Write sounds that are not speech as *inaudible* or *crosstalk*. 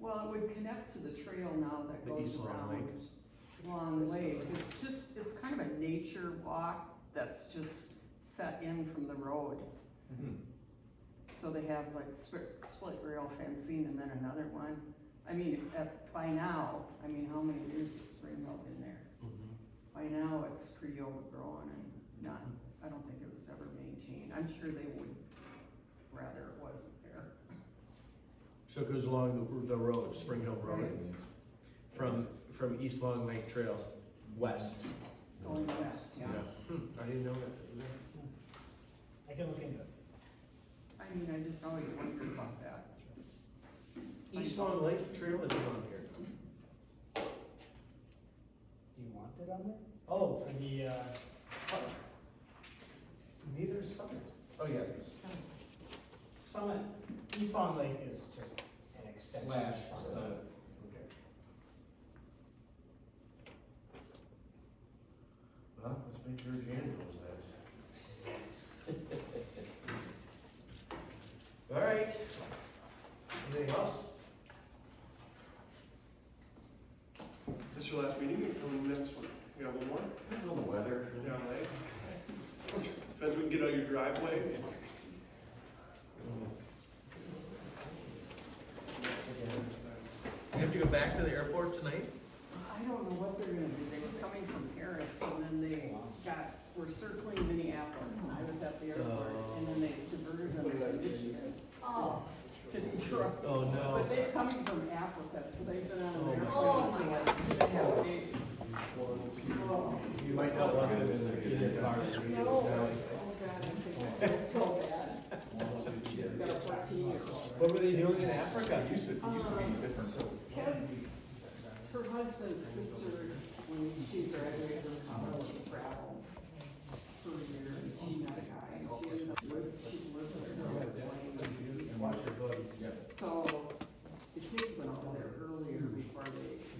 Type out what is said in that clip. would connect to the trail now that The goes East Long around Lake. Long Lake. It's just, it's kind of a nature walk that's just set in from the road. Mm-hmm. So they have like split, split rail fencing and then another one. I mean, at, by now, I mean, how many years has Spring Hill been there? Mhm. By now, it's pretty overgrown and not, I don't think it was ever maintained. I'm sure they would rather it wasn't there. So it goes along the, the road, Spring Hill Road, from, from East Long Lake Trail west. Going west, yeah. Hmm, I didn't know that. I can look into it. I mean, I just always wondered about that. East Long Lake Trail is on here. Do you want it on there? Oh, for the, uh, Neither is Summit. Oh, yeah. Summit, East Long Lake is just an extension of Slash, so, Summit. Okay. Well, let's make sure Jan knows *laughs* that. All right. Anything else? Is this your last meeting or coming next one? You got one more? Depends on the weather. Yeah, thanks. *laughs* Depends when we can get out your driveway. You have to go back to the airport tonight? I don't know what they're gonna do. They were coming from Paris and then they got, were circling Minneapolis and I was at the airport and then they diverted them to Michigan. Oh. To Detroit. Oh, But they're coming from Africa, so they've been on an airplane. Oh, for like two and a half days. Oh, You might not want to visit. No. Oh, God, I think I feel so bad. I've got a fourteen year old. What were they doing in Africa? Used to, it used to Um, be different. Ted's, her husband's sister, when she's graduated from college, she traveled for a year, and she met a guy, and she ended up with, she lived with her husband. Yeah. So, the kids went over there earlier before they Oh,